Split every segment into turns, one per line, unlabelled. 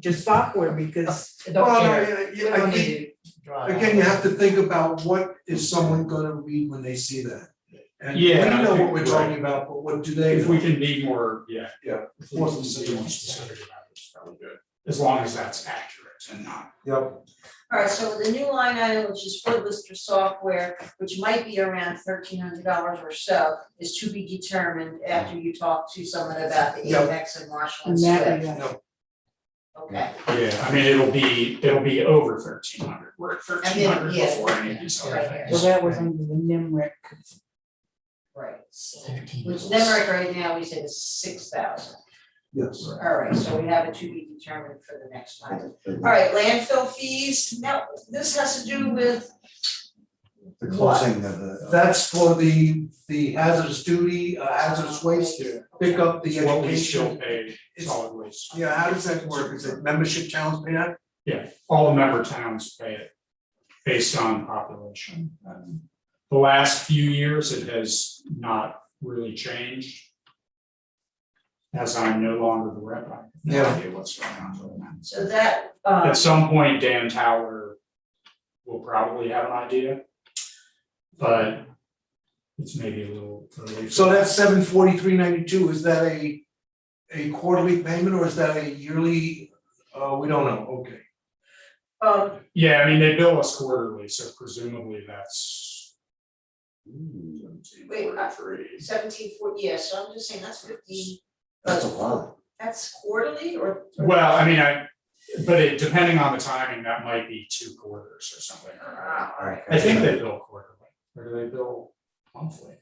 just software because
Don't
Well,
care.
I-
We
I- I
don't
think,
need to draw it out.
again, you have to think about what is someone gonna read when they see that? And we
Yeah, I
know what
think-
we're talking about, but what do they?
If we
know?
can be more, yeah.
Yeah.
If we can be more specific about this, that would be good, as long as that's accurate and not.
Yep,
Alright, so the new line item, which is for lister software, which might be around thirteen hundred dollars or so, is to be determined after you talk to someone about the
Yeah.
Apex and Marshall
and
and Swift.
that, yeah.
Okay,
Yeah. I mean, it'll be, it'll be over thirteen hundred, we're at thirteen hundred
yeah,
before any of these other
right
things.
So that was under the NIMRIC.
right, which Nemrick right now, we said is six thousand,
yes.
alright, so we have it to be determined for the next time. Alright, landfill fees, now, this has to do with,
The closing of the.
That's for the, the hazardous duty, uh, hazardous waste, pick up the
It's What we still
education.
pay
It's-
solid waste.
Yeah, how does that work? Is it membership towns pay that?
all the member towns pay it based on population. Um, The last few years, it has not really changed. As I'm no longer the rep, I have no
Yeah.
idea what's going on with that.
so that, um,
At some point, Dan Tower will probably have an idea. But it's maybe a little early.
So that's seven forty-three ninety-two, is that a, a quarterly payment or is that a yearly? Uh, we don't know, okay.
um,
Yeah, I mean, they bill us quarterly, so presumably that's.
Wait, I-
Three.
seventeen forty, yeah, so I'm just saying, that's fifteen,
That's a lot.
that's quarterly or? or-
Well, I mean, I, but it, depending on the timing, that might be two quarters or something, or,
Ah, all right.
I think they bill quarterly, or do they bill monthly?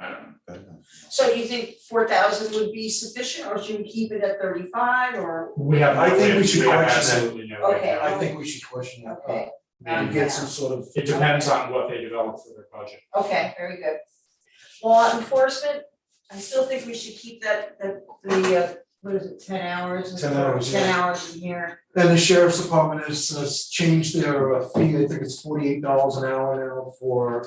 I don't know.
So you think four thousand would be sufficient, or should we keep it at thirty-five, or,
We have,
I
no
think
way-
we should
have
question that.
absolutely no way.
Okay. um,
I think we should question that.
okay,
And get some sort of.
It depends on what they develop for their budget.
okay, very good. Law enforcement, I still think we should keep that, the, the, uh, what is it, ten hours?
10 hours,
Ten
yeah.
hours in here,
Then the sheriff's department has, has changed their uh, fee, I think it's forty-eight dollars an hour now for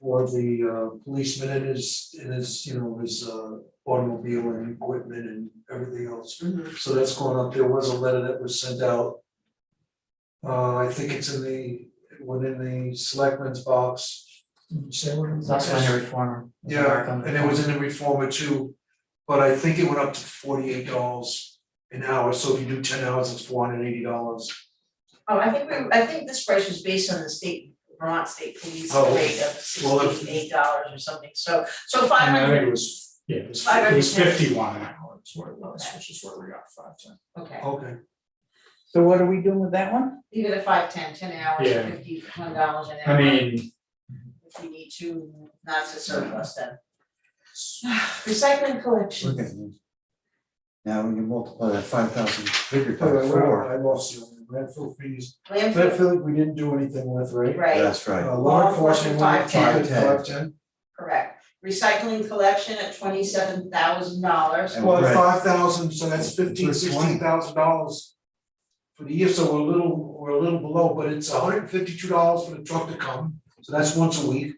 for the uh, policeman and his, and his, you know, his uh, automobile and equipment and everything else. So that's going up, there was a letter that was sent out. Uh, I think it's in the, within the selectmen's box.
It's also under reformer.
Yeah, and it was in the reformer too, but I think it went up to forty-eight dollars an hour, so if you do ten hours, it's four hundred and eighty dollars.
oh, I think we, I think this price was based on the state, Vermont State Police
Oh,
rate of
well, if-
sixty-eight dollars or something, so, so five
And I
hundred,
think it was, yeah, it was,
Five
it was
hundred and ten.
fifty-one an hour is what it was, which is where we got five ten.
okay.
Okay.
So what are we doing with that one?
leave it at five, ten, ten hours,
Yeah.
fifty, one dollars an hour.
I mean,
If we need to, not to surplus them. Recycling collection,
Okay. Now, when you multiply that five thousand figure
Wait,
Oh,
by
wait, wait,
four,
I lost you, landfill fees,
landfill,
landfill, we didn't do anything with, right?
right,
that's right.
Uh, law enforcement, we
Five ten.
did five ten,
correct, recycling collection at twenty-seven thousand dollars,
And
well,
right,
five thousand, so that's fifteen,
Plus
sixteen thousand dollars for the year, so we're a little, we're a little below, but it's hundred and fifty-two dollars for the truck to come, so that's once a week.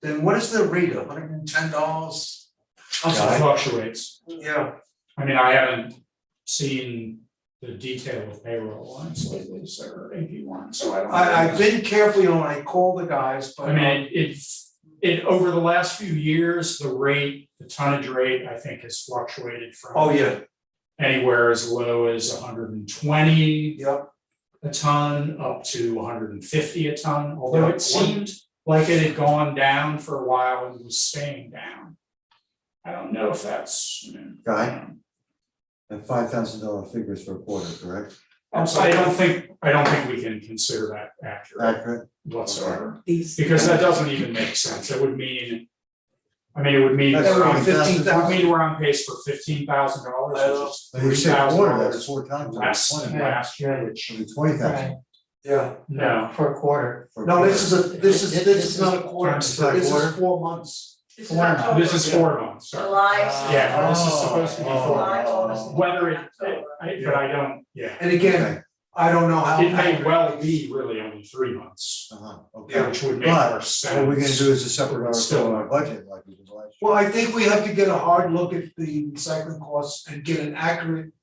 Then what is the rate, hundred and ten dollars? I'm
so it
sorry,
fluctuates.
yeah,
I mean, I haven't seen the detail of payroll lines lately, so or AP one, so I don't.
I,
know.
I've been carefully on, I call the guys, but.
I mean, it's, it, over the last few years, the rate, the tonnage rate, I think has fluctuated from.
Oh, yeah,
Anywhere as low as hundred and twenty
yep,
a ton up to hundred and fifty a ton, although
Yeah, one-
it seemed like it had gone down for a while and was staying down. I don't know if that's, you know,
Guy? That five thousand dollar figures for a quarter, correct?
Um, I don't think, I don't think we can consider that accurate
Accurate?
whatsoever,
These.
because that doesn't even make sense, it would mean. I mean, it would mean,
That's
we're on- it
fifteen
would
thousand,
mean we're on pace for fifteen thousand dollars, which is
Like we
three
said,
thousand
quarter,
dollars
that's four times,
less than last year, which,
twenty thousand.
Right,
yeah,
no,
for a quarter.
no, this is a, this is, this is not a quarter,
This
this
is
not a
is
quarter.
four months.
this is
Four now.
October,
this is four months, sorry.
July,
Uh,
Yeah, this is supposed to be
Oh,
four.
July, August.
Whether it,
October.
I, but I don't, yeah,
And again,
Okay,
I don't know how.
it may well be really only three months,
uh-huh, okay.
which would make more sense.
What we're gonna do is a separate article
Still.
on our budget like we did last year.
Well, I think we have to get a hard look at the recycling costs and get an accurate